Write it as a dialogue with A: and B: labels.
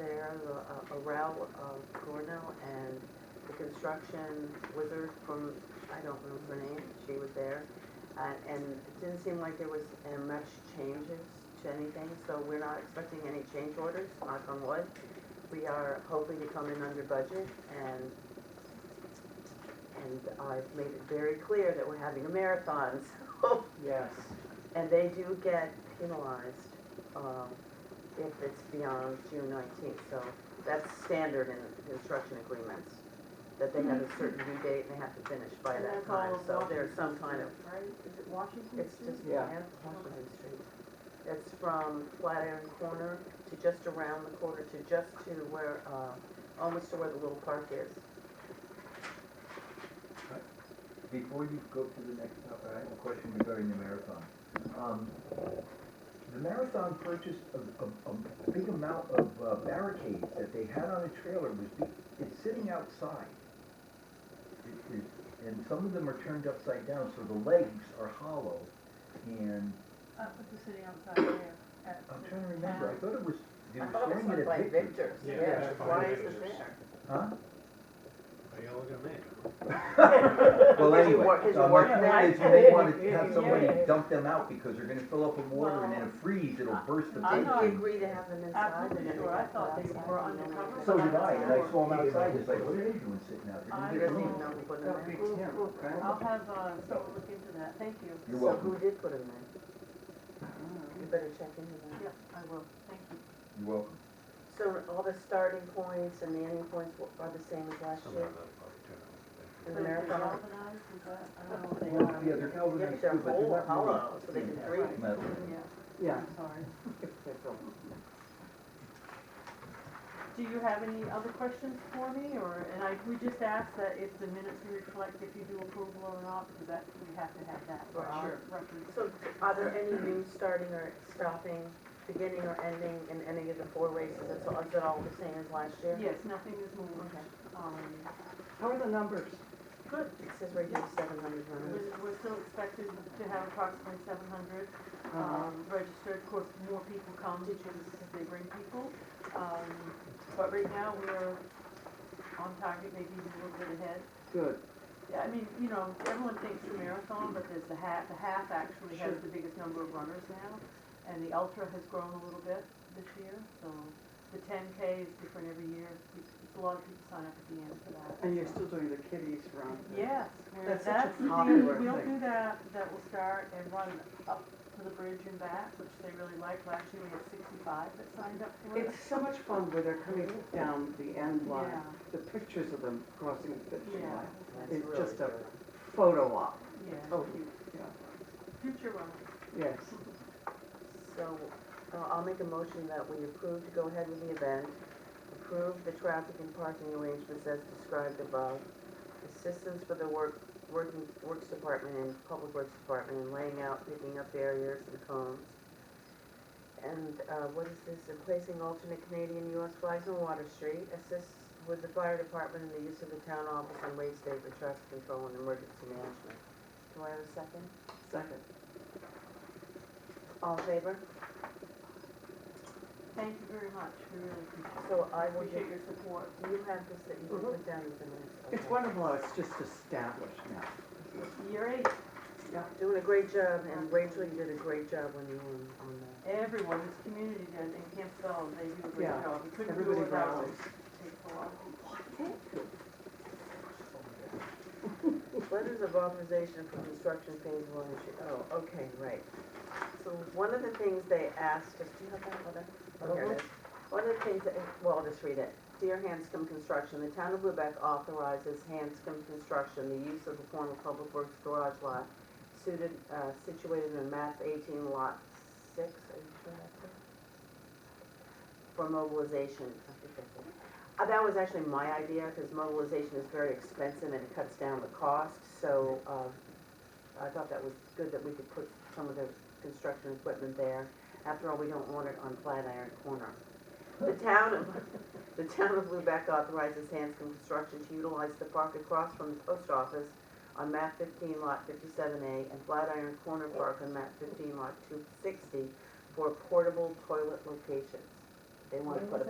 A: around, uh, around uh, Gornell and the construction wizard from, I don't remember her name, she was there. Uh, And it didn't seem like there was uh, much changes to anything, so we're not expecting any change orders, knock on wood. We are hoping to come in under budget and, and I've made it very clear that we're having a marathon, so
B: Yes.
A: and they do get penalized um, if it's beyond June nineteenth, so that's standard in construction agreements, that they have a certain due date Mm-hmm. and they have to finish by
C: And
A: that
C: that's all
A: time,
C: of
A: so
C: Washington
A: there's some kind of,
C: Right, is it Washington
A: it's
C: Street?
A: just,
B: Yeah.
A: yeah, Washington Street. It's from Flatiron Corner to just around the corner to just to where, uh, almost to where the little park is.
D: Before you go to the next topic, I have a question regarding the marathon. Um, The marathon purchased a, a, a big amount of uh, barricades that they had on a trailer was, be- it's sitting outside. It- it- And some of them are turned upside down, so the legs are hollow. And
E: Up at the city outside there. at
D: I'm
E: the
D: trying to remember, I thought it was, they
A: I
D: were
A: thought it
D: throwing it
A: was
D: at
A: like
D: Victor's.
A: Victor's,
F: Yeah,
A: yeah,
F: that's
A: why
F: fine.
A: is it there?
D: Huh?
F: Are y'all looking at me?
D: Well,
A: His
D: anyway,
A: work- his
D: so my
A: work
D: point
A: night.
D: is you may wanna
B: Yeah,
D: have
B: yeah,
D: somebody
B: yeah.
D: dump them out because they're gonna fill up with water and then it freeze, it'll burst the
E: I'm
D: thing.
A: Did
E: not-
A: you agree to have them inside?
E: Absolutely sure. I thought they were undercover.
D: So did I, and I saw him outside, it's like, what are they doing sitting
E: I
D: out there?
A: He
D: You get
A: doesn't
D: me.
A: even know who put them in.
E: I'll have, uh, someone look into that, thank you.
D: You're
A: So who
D: welcome,
A: did put him there? You better check into that.
E: Yep, I will, thank you.
D: you're welcome.
A: So all the starting points and the ending points wa- are the same as last
F: Somewhere
A: year?
F: that probably turned
A: Is it
E: But
F: out.
E: if they're
A: marathon?
E: galvanized, is that, I don't know what they
D: Well,
E: are.
D: yeah, they're galvanized
A: Yep, they're
D: too, but they're
A: whole
D: not really
A: hollow, so they can breathe.
D: metal.
E: Yeah,
B: Yeah.
E: I'm sorry. Do you have any other questions for me, or, and I, we just asked that if the minutes reflect if you do approval or not, because that, we have to have that for
A: Sure.
E: our records.
A: So are there any new starting or stopping, beginning or ending in any of the four races? Is it all- is it all the same as last year?
E: Yes, nothing is moved,
A: Okay.
E: um,
B: How are the numbers?
A: Good. It says right here seven hundred runners.
E: We're we're still expected to have approximately seven hundred um, registered. Of course, more people come because they bring people. Um, But right now, we're on target, maybe even a little bit ahead.
B: Good.
E: Yeah, I mean, you know, everyone thinks the marathon, but there's the half, the half actually has
B: Sure.
E: the biggest number of runners now. And the ultra has grown a little bit this year, so the ten K is different every year. It's it's a lot of people sign up at the end for that.
B: And you're
E: so.
B: still doing the kiddies run?
E: Yes, we're-
B: That's
E: that's
B: such a
E: the thing,
B: popular
E: we'll
B: thing.
E: do that, that will start and run up to the bridge and back, which they really like, last year we had sixty-five that signed up for it.
B: It's so much fun where they're coming down the end line,
E: Yeah,
B: the pictures of them crossing the finish
E: yeah,
B: line.
E: that's-
B: It's
A: really
B: just a
A: good.
B: photo op,
E: yeah.
A: Oh.
E: Future runners.
B: yes.
A: So uh, I'll make a motion that we approve to go ahead with the event, approve the traffic and parking arrangements as described above, assistance for the work, working, works department and public works department in laying out, picking up barriers and cones. And uh, what is this, in placing alternate Canadian US flags on Water Street, assist with the fire department in the use of the town office and waste state for traffic control and emergency management. Do I have a second?
B: Second.
A: All in favor?
E: Thank you very much, we really appreciate it.
A: So
B: Oh,
A: I will give
E: Appreciate your support.
A: Do you have this that you can put down with the minutes?
B: Mm-hmm. It's
A: Okay.
B: wonderful, how it's just established now.
E: Year eight,
A: Doing a great job, and Rachel, you did a great job when you were on- on that.
E: everyone, this community does, in Camp Bell, they do a great
B: Yeah,
E: job. We couldn't do it
B: Everybody
E: without it.
B: rallies.
E: Takes a lot of people.
A: Letters of authorization for construction phase one, and two. oh, okay, right. So one of the things they asked, us- do you have that letter? Oh, here it is. One of the things, that- well, I'll just read it. Dear Hanscom Construction, the town of Lubec authorizes Hanscom Construction the use of the former Public Works garage lot suited, uh, situated in map eighteen lot six, are you sure that's it? For mobilization, I think that's it. Uh, That was actually my idea, because mobilization is very expensive and it cuts down the cost, so uh, I thought that was good that we could put some of the construction equipment there. After all, we don't want it on Flatiron Corner. The town of, the town of Lubec authorizes Hanscom Construction to utilize the park across from the post office on map fifteen lot fifty-seven A and Flatiron Corner Park on map fifteen lot two sixty for portable toilet locations. They want to put a